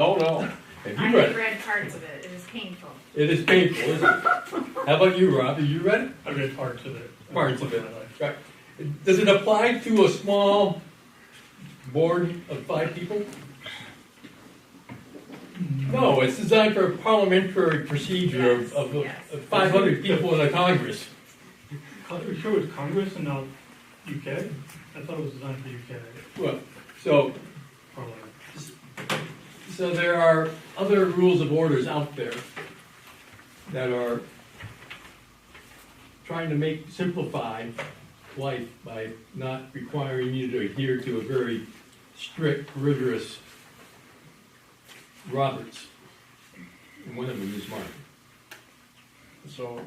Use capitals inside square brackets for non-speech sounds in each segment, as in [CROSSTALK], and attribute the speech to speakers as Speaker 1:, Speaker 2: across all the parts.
Speaker 1: all. Oh, Have
Speaker 2: I
Speaker 1: you read
Speaker 2: have
Speaker 1: it?
Speaker 2: read parts of it, it is painful.
Speaker 1: It is painful, isn't it? How about you, Rob? Have you read
Speaker 3: I read parts of it.
Speaker 1: it? Parts of it. Right. Does it apply to a small board of five people? No, it's designed for a parliamentary procedure of, of,
Speaker 2: Yes, yes.
Speaker 1: of five hundred people in a congress.
Speaker 3: Are you sure it was Congress and not UK? I thought it was designed for UK,
Speaker 1: Well, so,
Speaker 3: probably.
Speaker 1: so there are other rules of orders out there that are trying to make, simplify life by not requiring you to adhere to a very strict, rigorous Roberts. And one of them is mine.
Speaker 4: So,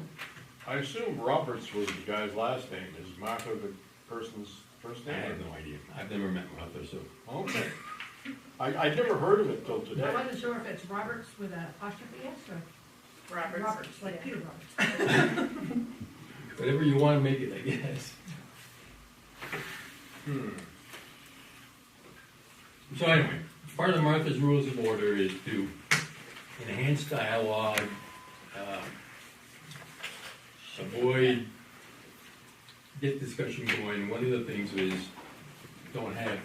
Speaker 4: I assume Roberts was the guy's last name, is Martha the person's first
Speaker 1: I
Speaker 4: name?
Speaker 1: have no idea. I've never met one out there, so.
Speaker 4: Okay. I, I'd never heard of it till today.
Speaker 5: I wasn't sure if it's Roberts with an apostrophe S or
Speaker 2: Roberts.
Speaker 5: Roberts, like
Speaker 2: yeah.
Speaker 5: Peter Roberts.
Speaker 1: Whatever you wanna make it, I guess.
Speaker 4: Hmm.
Speaker 1: So anyway, part of Martha's Rules of Order is to enhance dialogue, uh, avoid, get discussion going. One of the things is, don't have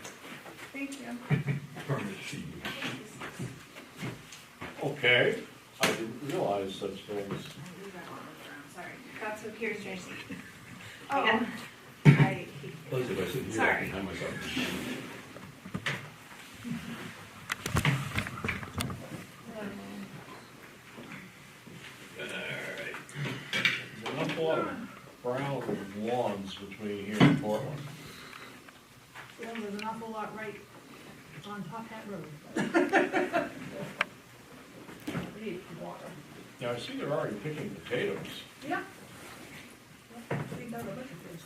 Speaker 2: Thank you.
Speaker 1: permit fees.
Speaker 4: Okay, I didn't realize such things.
Speaker 2: I moved that one around, Sorry, that's what here's Jason.
Speaker 5: Oh.
Speaker 2: I,
Speaker 1: Those of us in here, I
Speaker 2: Sorry.
Speaker 1: can hide myself. Alright.
Speaker 4: There's an awful lot of brown lawns between here and Portland.
Speaker 5: Well, there's an awful lot right on Top Hat Road. We Need water.
Speaker 4: Now, I see they're already picking potatoes.
Speaker 5: Yeah. We got a bunch of things.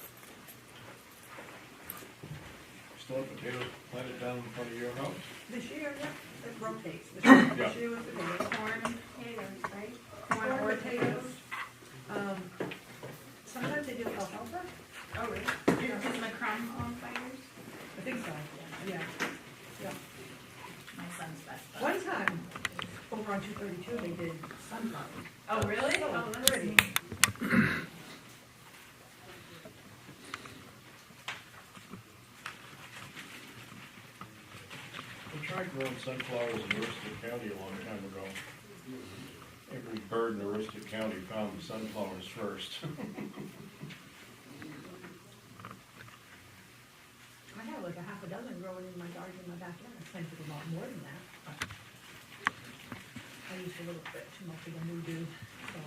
Speaker 4: Still have potatoes planted down in front of your house?
Speaker 5: This year, yeah, it rotates. This year- This
Speaker 4: Yeah.
Speaker 5: year was the biggest.
Speaker 2: corn and potatoes, right?
Speaker 5: Corn, potatoes. Um, Sometimes they do alfalfa.
Speaker 2: Oh, really? Is the crumb on fires?
Speaker 5: I think so, yeah.
Speaker 2: My son's best bud.
Speaker 5: One time, over on two thirty-two, they did sunflowers.
Speaker 2: Oh, really?
Speaker 5: Oh,
Speaker 2: Oh, that's
Speaker 5: pretty.
Speaker 2: neat.
Speaker 4: I tried growing sunflowers in Aroostook County a long time ago. Every bird in Aroostook County found the sunflowers first. [LAUGHS]
Speaker 5: I have like a half a dozen growing in my garden in my backyard, I planted a lot more than that, but I used a little bit too much of the new do, so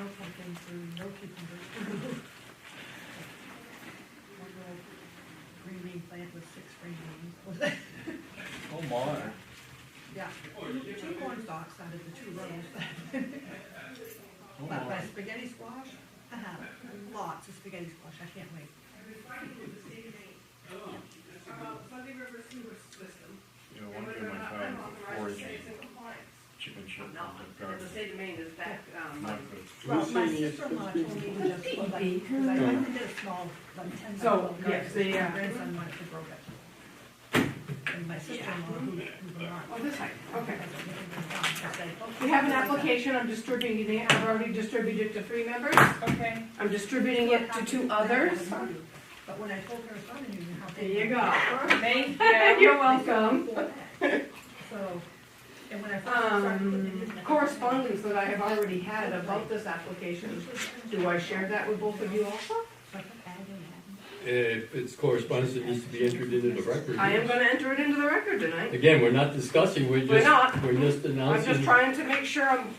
Speaker 5: no pumpkins, or no cucumbers. [LAUGHS] One little green bean plant with six green beans. [LAUGHS]
Speaker 4: Oh my.
Speaker 5: Yeah, two corn stalks out of the two rows. [LAUGHS]
Speaker 4: Oh
Speaker 5: But my
Speaker 4: my.
Speaker 5: spaghetti squash, I have lots of spaghetti squash, I can't wait.
Speaker 4: You know, one day my time for foraging chicken shit in the garden.
Speaker 6: state of Maine is back,
Speaker 4: [LAUGHS]
Speaker 6: um,
Speaker 4: Not
Speaker 5: Well, my sister-in-law told me to just pull that, because I only did a small, like ten by
Speaker 6: So,
Speaker 5: twelve garden,
Speaker 6: yes, they,
Speaker 5: my
Speaker 6: uh,
Speaker 5: grandson wanted to grow that. And my sister-in-law, who, who's not.
Speaker 6: oh, this side,
Speaker 5: I
Speaker 6: okay.
Speaker 5: said, okay.
Speaker 6: We have an application, I'm distributing it, I've already distributed it to three members,
Speaker 2: Okay.
Speaker 6: I'm distributing it to two others.
Speaker 5: But when I told her son, you know how.
Speaker 6: There
Speaker 5: they-
Speaker 6: you go.
Speaker 2: Thank you.
Speaker 6: You're welcome.
Speaker 5: [LAUGHS] So, and when I first started putting
Speaker 6: Um,
Speaker 5: it in.
Speaker 6: correspondence that I have already had about this application, do I share that with both of you also?
Speaker 1: If it's correspondence that needs to be entered into the record.
Speaker 6: I am gonna enter it into the record tonight,
Speaker 1: Again, we're not discussing, we're
Speaker 6: We're
Speaker 1: just,
Speaker 6: not.
Speaker 1: we're just
Speaker 6: I'm just
Speaker 1: announcing.
Speaker 6: trying to make sure I'm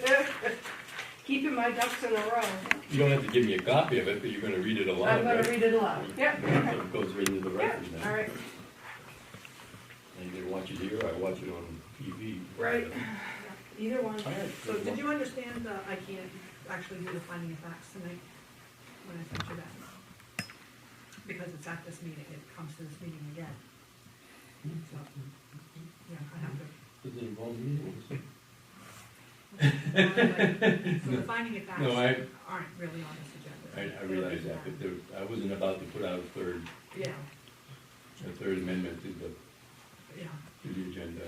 Speaker 6: [LAUGHS] keeping my ducks in a row.
Speaker 1: You don't have to give me a copy of it, but you're gonna read it aloud,
Speaker 6: I'm gonna
Speaker 1: right?
Speaker 6: read it aloud, yep,
Speaker 1: So
Speaker 6: okay,
Speaker 1: It goes right into the
Speaker 6: yeah,
Speaker 1: record now.
Speaker 6: all right.
Speaker 1: I either watch it here or I watch it on TV.
Speaker 6: Right. Either one.
Speaker 5: So did you understand that I can't actually do the finding of facts tonight when I sent you that? Because it's at this meeting, it comes to this meeting again. So, yeah, I have to.
Speaker 1: Does it involve me?
Speaker 5: So the finding of facts
Speaker 1: No, I,
Speaker 5: aren't really on this agenda.
Speaker 1: I, I realize that, but there, I wasn't about to put out a third,
Speaker 5: Yeah,
Speaker 1: a third amendment to the,
Speaker 5: yeah.
Speaker 1: to the agenda.